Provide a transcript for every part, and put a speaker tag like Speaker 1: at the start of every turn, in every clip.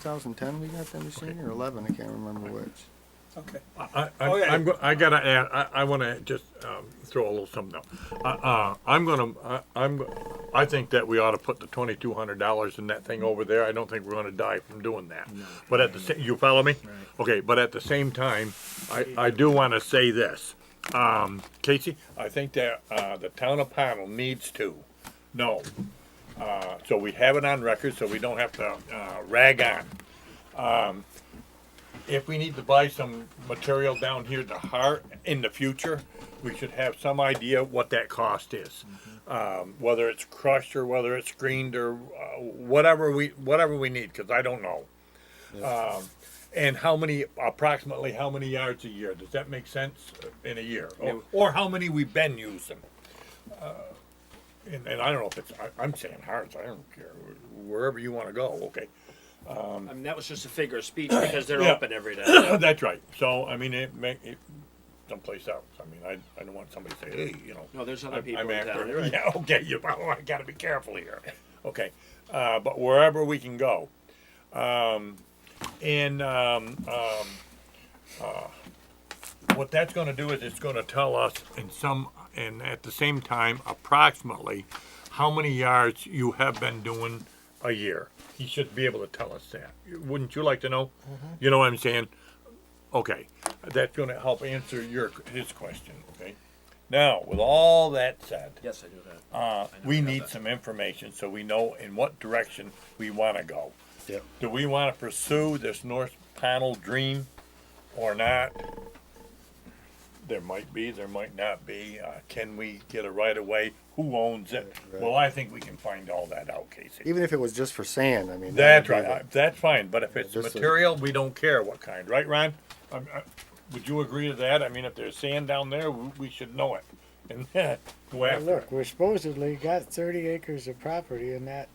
Speaker 1: 2010 we got the machine, or 11, I can't remember which.
Speaker 2: Okay.
Speaker 3: I, I,
Speaker 2: Okay.
Speaker 3: I'm, go- I gotta add, I, I wanna just, um, throw a little something out. Uh, uh, I'm gonna, I, I'm, go- I think that we ought to put the twenty-two hundred dollars in that thing over there. I don't think we're gonna die from doing that. But at the, sa- you follow me? Okay, but at the same time, I, I do wanna say this. Um, Casey, I think that, uh, the town of Pownell needs to know. Uh, so we have it on record, so we don't have to, uh, rag on if we need to buy some material down here to hire in the future, we should have some idea what that cost is. Um, whether it's crushed or whether it's screened or uh, whatever we, whatever we need, cause I don't know. Um, and how many, approximately how many yards a year? Does that make sense in a year? Or, or how many we've been using? Uh, And, and I don't know if it's, I, I'm saying yards, I don't care, wherever you wanna go, okay?
Speaker 4: I mean, that was just a figure of speech because they're
Speaker 3: Yeah.
Speaker 4: open every day.
Speaker 3: That's right. So, I mean, it may, it, someplace else. I mean, I, I don't want somebody to say, hey, you know.
Speaker 4: No, there's other
Speaker 3: I'm-
Speaker 4: people
Speaker 3: I'm
Speaker 4: in
Speaker 3: after-
Speaker 4: town, you're right.
Speaker 3: Yeah, okay, you, oh, I gotta be careful here. Okay, uh, but wherever we can go. Um, and, um, um, uh, what that's gonna do is it's gonna tell us in some, and at the same time, approximately, how many yards you have been doing a year. He should be able to tell us that. Wouldn't you like to know? You know what I'm saying? Okay, that's gonna help answer your, his question, okay? Now, with all that said,
Speaker 4: Yes, I do that.
Speaker 3: uh, we
Speaker 4: know
Speaker 3: need
Speaker 4: that.
Speaker 3: some information so we know in what direction we wanna go.
Speaker 1: Yep.
Speaker 3: Do we wanna pursue this North panel dream or not? There might be, there might not be, uh, can we get a right of way, who owns it?
Speaker 1: Right.
Speaker 3: Well, I think we can find all that out, Casey.
Speaker 1: Even if it was just for sand, I mean. that
Speaker 3: That's
Speaker 1: would
Speaker 3: right.
Speaker 1: be
Speaker 3: I- That's fine. But if it's
Speaker 1: Just a-
Speaker 3: material, we don't care what kind, right, Ron? I, I, would you agree to that? I mean, if there's sand down there, we, we should know it and go
Speaker 5: Well,
Speaker 3: after it.
Speaker 5: Look, we supposedly got thirty acres of property in that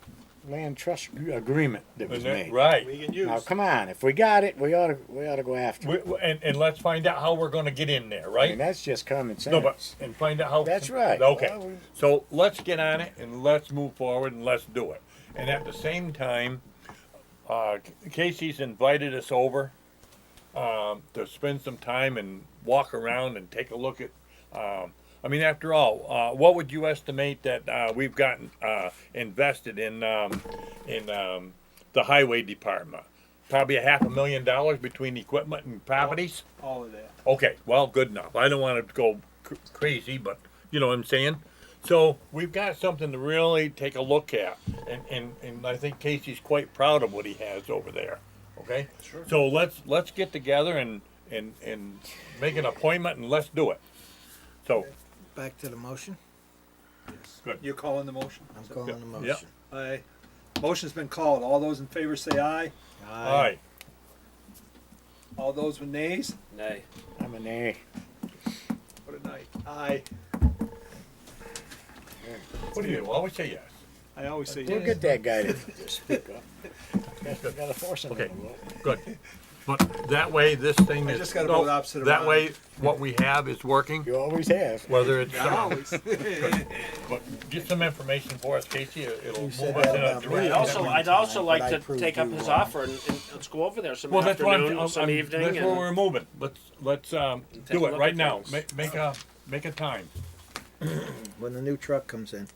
Speaker 5: land trust agreement that was
Speaker 3: And that-
Speaker 5: made.
Speaker 3: Right.
Speaker 2: We can
Speaker 5: Now,
Speaker 2: use,
Speaker 5: come on, if we got it, we ought to, we ought to go after
Speaker 3: We,
Speaker 5: it.
Speaker 3: we- and, and let's find out how we're going to get in there,
Speaker 5: I mean,
Speaker 3: right?
Speaker 5: that's just common
Speaker 3: No, but
Speaker 5: sense.
Speaker 3: and find out how.
Speaker 5: That's right. Well,
Speaker 3: Okay.
Speaker 5: we-
Speaker 3: So let's get on it and let's move forward and let's do it. And at the same time, uh, Casey's invited us over um, to spend some time and walk around and take a look at. Um, I mean, after all, uh, what would you estimate that uh, we've gotten uh, invested in um, in um, the highway department? Probably a half a million dollars between equipment and properties.
Speaker 2: all of that.
Speaker 3: Okay, well, good enough. I don't want to go cr- crazy, but you know what I'm saying? So we've got something to really take a look at. And, and, and I think Casey's quite proud of what he has over there. Okay? Sure. So let's let's get together and, and, and make an appointment and let's do it. So,
Speaker 6: Back to the motion?
Speaker 2: You're calling the motion?
Speaker 6: I'm calling the
Speaker 3: yeah.
Speaker 6: motion.
Speaker 2: Aye. Motion's been called. All those in favor say aye.
Speaker 3: All right.
Speaker 2: All those with nays?
Speaker 4: Nay.
Speaker 5: I'm a nay.
Speaker 2: What a night. Aye.
Speaker 3: What do you always say yes?
Speaker 2: I always say
Speaker 5: We'll
Speaker 2: yes.
Speaker 5: get that guy to speak up. Gotta gotta force him a
Speaker 3: Okay.
Speaker 5: little.
Speaker 3: Good. But that way, this thing
Speaker 2: I
Speaker 3: is.
Speaker 2: just gotta
Speaker 3: no,
Speaker 2: vote opposite of
Speaker 3: That
Speaker 2: Ron.
Speaker 3: way, what we have is working,
Speaker 5: You always have.
Speaker 3: whether it's.
Speaker 2: Always.
Speaker 3: But get some information for us, Casey. it- It'll move us
Speaker 6: said
Speaker 3: in
Speaker 6: that
Speaker 3: a
Speaker 6: about me.
Speaker 3: direction.
Speaker 4: I'd also, I'd also like
Speaker 6: But I
Speaker 4: to
Speaker 6: proved
Speaker 4: take up
Speaker 6: you
Speaker 4: his
Speaker 6: wrong.
Speaker 4: offer and, and let's go over there some
Speaker 3: Well, that's what I'm,
Speaker 4: afternoon,
Speaker 3: I'm-
Speaker 4: some
Speaker 3: I'm-
Speaker 4: evening,
Speaker 3: that's where we're
Speaker 4: and
Speaker 3: moving. Let's, let's, um,
Speaker 4: Take
Speaker 3: do
Speaker 4: a
Speaker 3: it
Speaker 4: look
Speaker 3: right
Speaker 4: at
Speaker 3: now.
Speaker 4: things.
Speaker 3: Make, make a, make a time.
Speaker 6: When the new truck comes in.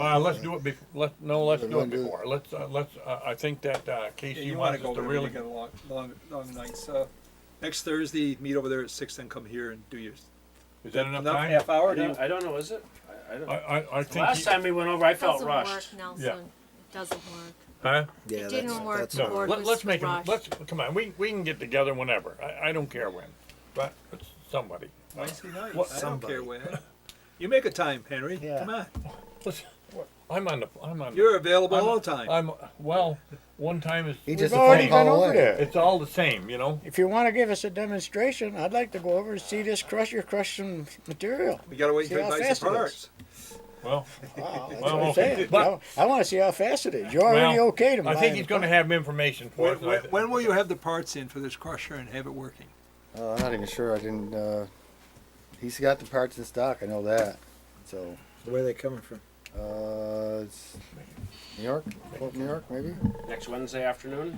Speaker 3: Uh, let's do it bef, let, no, let's do it
Speaker 1: wanna do it.
Speaker 3: before. Let's, uh, let's, uh, I think that, uh,
Speaker 2: Yeah,
Speaker 3: Casey
Speaker 2: You wanna
Speaker 3: wants
Speaker 2: go
Speaker 3: us to
Speaker 2: over there, you
Speaker 3: really.
Speaker 2: got a long, long, long night, so. Next Thursday, meet over there at six, then come here and do yours.
Speaker 3: Is that enough
Speaker 2: Enough,
Speaker 3: time?
Speaker 2: half hour,
Speaker 4: I
Speaker 2: do you?
Speaker 4: don't, I don't know, is it? I, I
Speaker 3: I,
Speaker 4: don't.
Speaker 3: I, I think.
Speaker 4: Last
Speaker 3: he-
Speaker 4: time we went over, I felt
Speaker 7: Doesn't work,
Speaker 4: rushed.
Speaker 7: Nelson. It doesn't work.
Speaker 3: Huh?
Speaker 6: Yeah,
Speaker 7: It
Speaker 6: that's,
Speaker 7: didn't work.
Speaker 6: that's
Speaker 7: The
Speaker 6: not
Speaker 3: No,
Speaker 7: board
Speaker 3: let,
Speaker 7: was
Speaker 3: let's make him,
Speaker 7: rushed.
Speaker 3: let's, come on, we, we can get together whenever. I, I don't care when. But, it's somebody.
Speaker 2: Wednesday night,
Speaker 3: What-
Speaker 2: I don't
Speaker 6: somebody.
Speaker 2: care when. You make a time, Henry,
Speaker 5: Yeah.
Speaker 2: come on.
Speaker 3: Listen, I'm on the, I'm on. the-
Speaker 2: You're available
Speaker 3: I'm-
Speaker 2: all the time.
Speaker 3: I'm, well, one time is.
Speaker 1: He
Speaker 5: We've
Speaker 1: just a
Speaker 5: already
Speaker 1: phone
Speaker 5: been
Speaker 1: call
Speaker 5: over
Speaker 1: away.
Speaker 5: there.
Speaker 3: It's all the same, you know?
Speaker 5: If you wanna give us a demonstration, I'd like to go over and see this crusher crush some material.
Speaker 2: We gotta wait
Speaker 5: See
Speaker 2: until
Speaker 5: how
Speaker 2: he buys
Speaker 5: fast it
Speaker 2: the
Speaker 5: is.
Speaker 2: parts.
Speaker 3: Well,
Speaker 5: Wow, that's what
Speaker 3: Well,
Speaker 5: I'm
Speaker 3: okay.
Speaker 5: saying.
Speaker 3: But-
Speaker 5: I I wanna see how fast it is. You're already
Speaker 3: Well,
Speaker 5: okay to mine.
Speaker 3: I think
Speaker 5: the
Speaker 3: he's gonna
Speaker 5: car.
Speaker 3: have information for
Speaker 2: When,
Speaker 3: us.
Speaker 2: when, when will you have the parts in for this crusher and have it working?
Speaker 1: Uh, I'm not even sure, I didn't, uh, he's got the parts in stock, I know that, so.
Speaker 6: Where are they coming from?
Speaker 8: Uh, it's New York, New York, maybe?
Speaker 1: Next Wednesday afternoon?